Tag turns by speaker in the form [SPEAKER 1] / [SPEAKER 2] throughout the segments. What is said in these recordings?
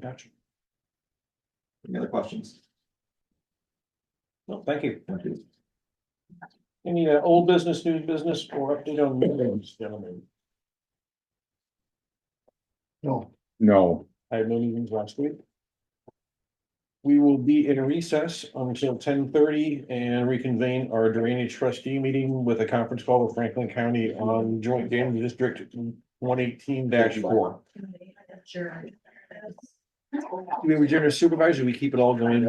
[SPEAKER 1] Gotcha.
[SPEAKER 2] Any other questions?
[SPEAKER 1] Well, thank you.
[SPEAKER 2] Thank you.
[SPEAKER 1] Any uh, old business, new business, or update on meetings, gentlemen? No,
[SPEAKER 3] No,
[SPEAKER 1] I had no meetings last week. We will be in recess until ten thirty and reconvene our drainage trustee meeting with a conference call with Franklin County on joint dam district one eighteen four.
[SPEAKER 4] Sure.
[SPEAKER 1] We were generous supervisor, we keep it all going.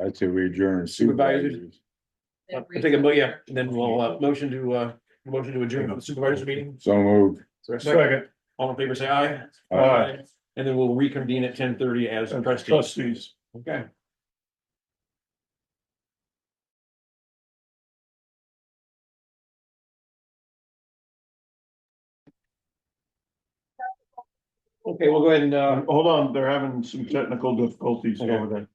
[SPEAKER 3] I'd say we adjourn
[SPEAKER 1] Supervisors.
[SPEAKER 3] supervisors.
[SPEAKER 1] Uh, Take a, mo- yeah, and then we'll, uh, motion to, uh, motion to adjourn the supervisors meeting.
[SPEAKER 3] So moved.
[SPEAKER 1] Second. All in favor, say aye.
[SPEAKER 3] Aye.
[SPEAKER 1] And then we'll reconvene at ten thirty as trustees.
[SPEAKER 5] Trustees.
[SPEAKER 1] Okay. Okay, we'll go ahead and, uh,
[SPEAKER 5] Uh, hold on, they're having some technical difficulties over there.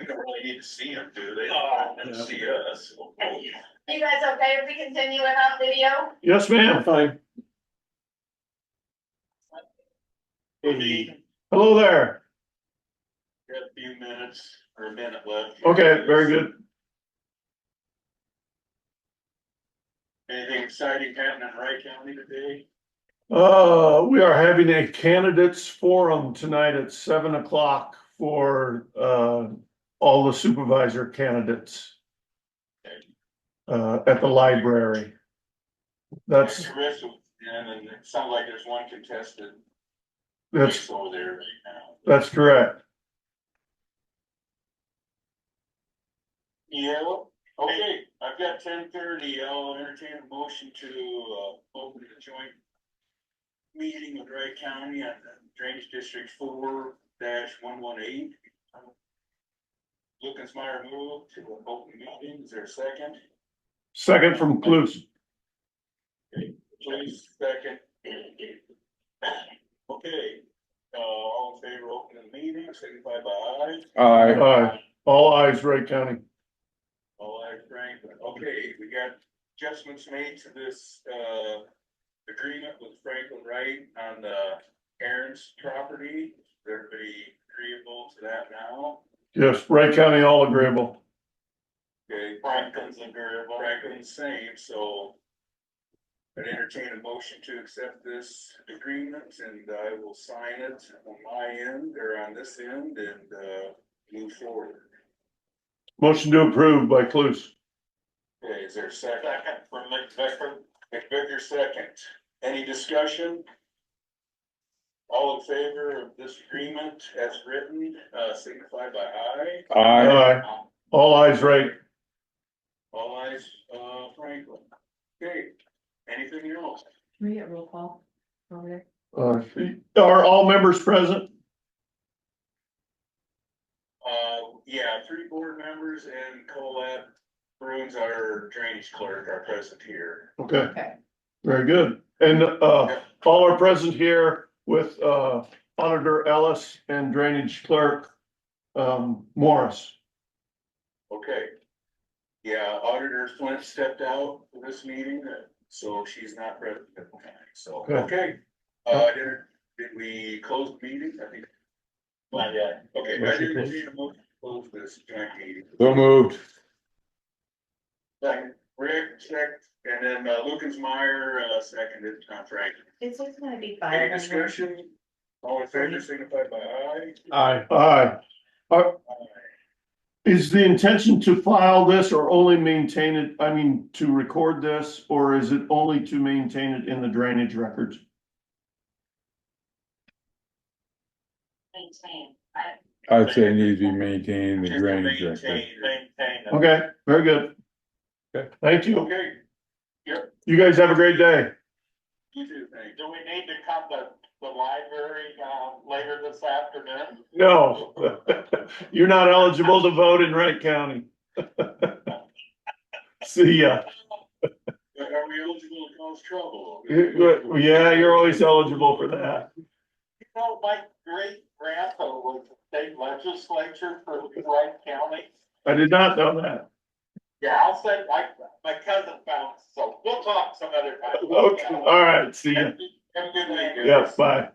[SPEAKER 6] We don't really need to see them, do they?
[SPEAKER 5] Oh,
[SPEAKER 6] And
[SPEAKER 1] Yeah.
[SPEAKER 6] see us.
[SPEAKER 4] You guys okay if we continue without video?
[SPEAKER 5] Yes, ma'am.
[SPEAKER 1] fine.
[SPEAKER 6] We'll be,
[SPEAKER 5] Hello there.
[SPEAKER 6] we have a few minutes or a minute left.
[SPEAKER 5] Okay, very good.
[SPEAKER 6] Anything exciting happening in Wright County today?
[SPEAKER 5] Uh, we are having a candidates forum tonight at seven o'clock for, uh, all the supervisor candidates. Uh, at the library. That's,
[SPEAKER 6] The rest of them, and it sounds like there's one contested
[SPEAKER 5] that's,
[SPEAKER 6] race over there right now.
[SPEAKER 5] that's correct.
[SPEAKER 6] Yeah, well, okay, I've got ten thirty, I'll entertain a motion to, uh, open the joint. Meeting with Wright County on Drainage District four one one eight. Lucas Meyer moved to an open meeting, is there a second?
[SPEAKER 5] Second from Clues.
[SPEAKER 6] Please, second. Okay, uh, all in favor, of opening the meeting, signify by aye.
[SPEAKER 3] Aye.
[SPEAKER 5] Aye. All eyes, Wright County.
[SPEAKER 6] All right, Frank, okay, we got adjustments made to this, uh, agreement with Franklin Wright on the Aaron's property. Is Everybody agreeable to that now?
[SPEAKER 5] Yes, Wright County, all agreeable.
[SPEAKER 6] Okay, Franklin's agreeable. Franklin's same, so. I'd entertain a motion to accept this agreement and I will sign it on my end or on this end and, uh, move forward.
[SPEAKER 5] Motion to approve by Clues.
[SPEAKER 6] Okay, is there a second? Second from McVicker. McVicker second. Any discussion? All in favor of this agreement as written, uh, signify by aye.
[SPEAKER 3] Aye.
[SPEAKER 5] Aye. All eyes, Wright.
[SPEAKER 6] All eyes, uh, Franklin. Okay, anything else?
[SPEAKER 4] Can we get roll call over there?
[SPEAKER 5] Uh, are all members present?
[SPEAKER 6] Uh, yeah, three board members and Colette Bruins, our drainage clerk, are present here.
[SPEAKER 5] Okay,
[SPEAKER 4] Okay.
[SPEAKER 5] very good. And, uh, all are present here with, uh, Auditor Ellis and Drainage Clerk, um, Morris.
[SPEAKER 6] Okay. Yeah, Auditor Flint stepped out for this meeting, uh, so she's not present at the time, so,
[SPEAKER 5] Good.
[SPEAKER 6] okay. Uh, did, did we close the meeting? I think. Not yet. Okay, I didn't need a motion to close this joint meeting.
[SPEAKER 3] So moved.
[SPEAKER 6] Second, Rick, second, and then uh, Lucas Meyer, uh, seconded, Tom Frank.
[SPEAKER 4] It's just gonna be
[SPEAKER 6] Any
[SPEAKER 4] five.
[SPEAKER 6] discussion? All in favor, signify by aye.
[SPEAKER 1] Aye.
[SPEAKER 5] Aye. Uh,
[SPEAKER 6] Aye.
[SPEAKER 5] Is the intention to file this or only maintain it, I mean, to record this, or is it only to maintain it in the drainage records?
[SPEAKER 4] Maintain, I,
[SPEAKER 3] I'd say it needs to be maintained the
[SPEAKER 6] Just
[SPEAKER 3] drainage record.
[SPEAKER 6] Maintain, maintain. it.
[SPEAKER 5] Okay, very good.
[SPEAKER 1] Okay.
[SPEAKER 5] Thank you.
[SPEAKER 6] Okay,
[SPEAKER 5] You guys have a great day.
[SPEAKER 6] you do, thank Do we need to come to the library, um, later this afternoon?
[SPEAKER 5] No, you're not eligible to vote in Wright County. See ya.
[SPEAKER 6] Are we eligible to cause trouble?
[SPEAKER 5] Yeah, you're always eligible for that.
[SPEAKER 6] You know, my great grandpa was a state legislature for Wright County.
[SPEAKER 5] I did not know that.
[SPEAKER 6] Yeah, I'll say, my, my cousin found, so we'll talk some other time.
[SPEAKER 5] Okay, all right, see ya.
[SPEAKER 6] Have a good night.
[SPEAKER 5] Yes, bye.